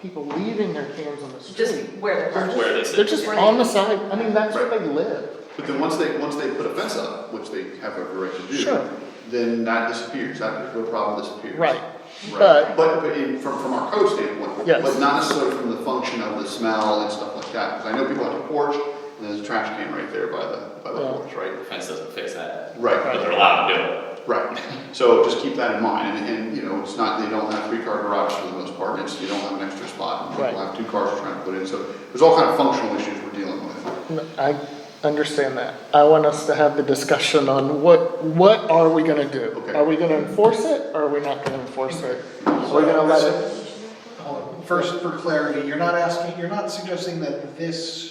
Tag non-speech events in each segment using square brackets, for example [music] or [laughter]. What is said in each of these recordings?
people leaving their cans on the street. just where they're parked. Where they sit. They're just Where they- on the side, I mean, that's where they live. But then once they, once they put a fence up, which they have every right to do. Sure. Then that disappears, that, the problem disappears. Right. Right. But- But, but in, from, from our code standpoint. Yes. But not necessarily from the function of the smell and stuff like that, because I know people have a porch, and there's a trash can right there by the, by the Yeah. porch, right? The fence doesn't fix that, but Right, they're allowed to do it. right, so just keep that in mind, and, and, you know, it's not, they don't have three car garages for the most part, it's, you don't have an extra spot. and Right. People have two cars they're trying to put in, so there's all kind of functional issues we're dealing with. No, I understand that. I want us to have the discussion on what, what are we gonna do? Okay. Are we gonna enforce it, or are we not gonna enforce it? Are we gonna let it? Hold on. First, for clarity, you're not asking, you're not suggesting that this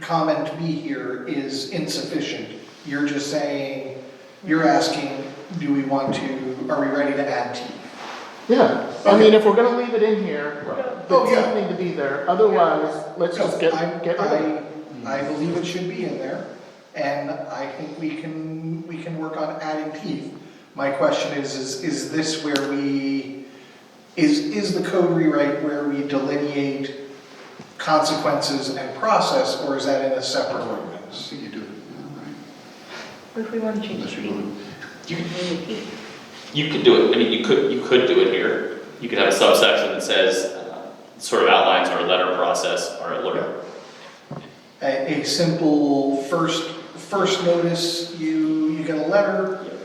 comment B here is insufficient. You're just saying, you're asking, do we want to, are we ready to add teeth? Yeah, I mean, if we're gonna leave it in here, the Oh, yeah. teeth need to be there, otherwise, let's just get, No, I- get rid of it. I, I believe it should be in there, and I think we can, we can work on adding teeth. My question is, is, is this where we, is, is the code rewrite where we delineate consequences and process, or is that in a separate I ordinance? think you do it, yeah, right, What if we want to change unless the you want P? to. You, Maybe you could do it, I mean, you could, you could do it here. You could have a subsection that says, uh, sort of outlines our letter process, our alert. A, a simple first, first notice, you, you get a letter,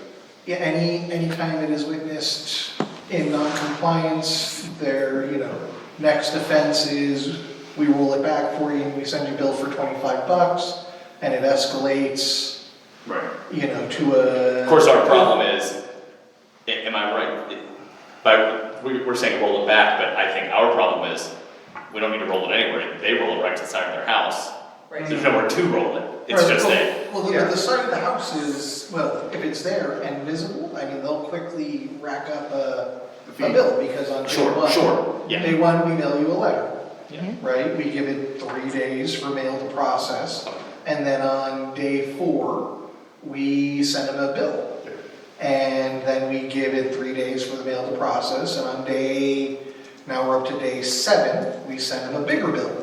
Yeah, any, any time it is witnessed in noncompliance, their, you know, next offense is, we roll it back for you and we send you a bill for twenty-five bucks, and it escalates, Right. you know, to a. Of course, our problem is, a- am I right? But we, we're saying roll it back, but I think our problem is, we don't need to roll it anywhere. They roll it right to the side of their house. Right. There's nowhere to roll it, it's Right, just well- a, Well, the, Yeah. the side of the house is, well, if it's there and visible, I mean, they'll quickly rack up a, A fee. a bill, because on day Sure, one. sure, yeah. Day one, we mail you a letter. Yeah. Right, we give it three days for mail to process, and then on day four, we send them a bill. And then we give it three days for the mail to process, and on day, now we're up to day seven, we send them a bigger bill.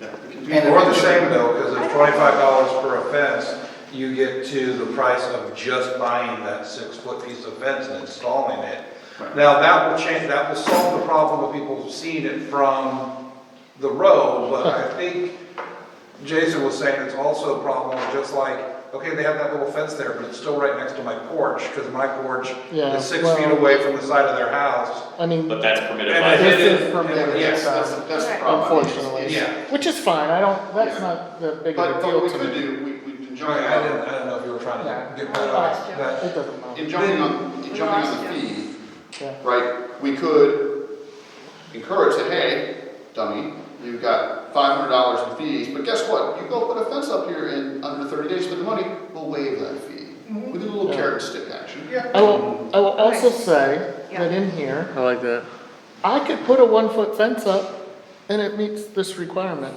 It's more the same though, because it's twenty-five dollars per offense, you get to the price of just buying that six-foot piece of fence and installing it. Right. Now, that will change, that will solve the problem of people seeing it from the road, [laughs] but I think Jason was saying it's also a problem of just like, okay, they have that little fence there, but it's still right next to my porch, because my porch Yeah, is six well- feet away from the side of their house. I mean, but that's permitted And by. it- this it- is permitted, it- Yes, that's, yes, that's the problem. uh, unfortunately, Yeah. which is fine, I don't, that's Yeah. not the big of a But, but deal what we to could me. do, we, we, in Johnny, jumping I didn't, on, I don't know if you were trying Yeah. to get that uh, Lost off, you. that. It doesn't matter, in jumping on, in We jumping on lost the you. fee, yeah. right, we could encourage that, hey, dummy, you've got five hundred dollars in fees, but guess what? You go put a fence up here in under thirty days for the money, we'll waive that fee. We do a little Yeah. carrot and stick action. I will, I will also say Yeah. that in here. I like that. I could put a one-foot fence up and it meets this requirement.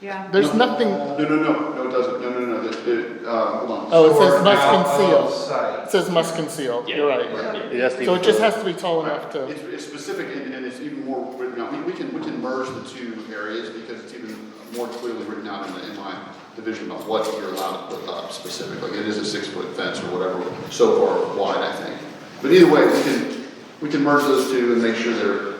Yeah. There's nothing, No, no, no, no, it doesn't, no, no, no, the, the, uh, hold on. oh, it Or says out must of conceal. sight. It says must conceal, Yeah. you're right. Right. Yeah. So it just has to be tall enough to, It's, it's specific and, and it's even more written out, we, we can, we can merge the two areas because it's even more clearly written out in, the- in my division of what you're allowed to put up specifically. It is a six-foot fence or whatever, so far wide, I think. But either way, we can, we can merge those two and make sure they're,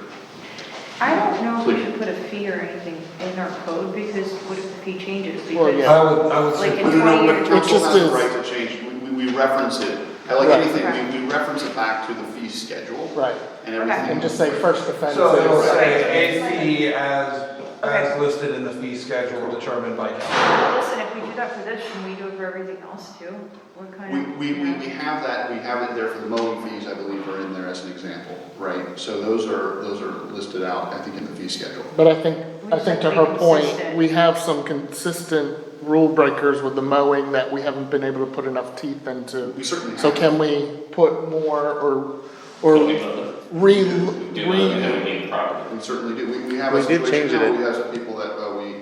I don't know if we Please. should put a fee or anything in our code because what if the fee changes? Well, Because- yeah. I would, I would Like say, in No, no, no, 20 years. but It council just has is- the right to change, We- we, we reference it, I like Right. anything, we, we reference it back to the fee schedule right, and everything. and just say first offense. so it'll is- say a fee as, Okay. as listed in the fee schedule determined by council. Listen, if we do that for this, should we do it for everything else too? What kind We, of? we, we we have that, we have it there for the mowing fees, I believe, are in there as an example, right? So those are, those are listed out, I think, in the fee schedule. But I think, I We think should to be her point, consistent. we have some consistent rule breakers with the mowing that we haven't been able to put enough teeth into. We certainly So have. can we put more or, Don't we or vote? re, Do it, and re, then we need the property. We certainly do. We, we have a We did situation change it now, in- where we have some people that, uh, we,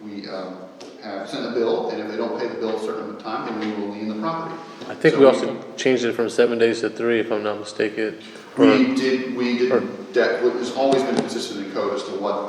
we, um, have sent a bill, and if they don't pay the bill a certain amount of time, then we will lien the property. I think So we also changed it from seven days to three, if I'm not mistaken. We did, we or- did, that was always been consistent in code as to what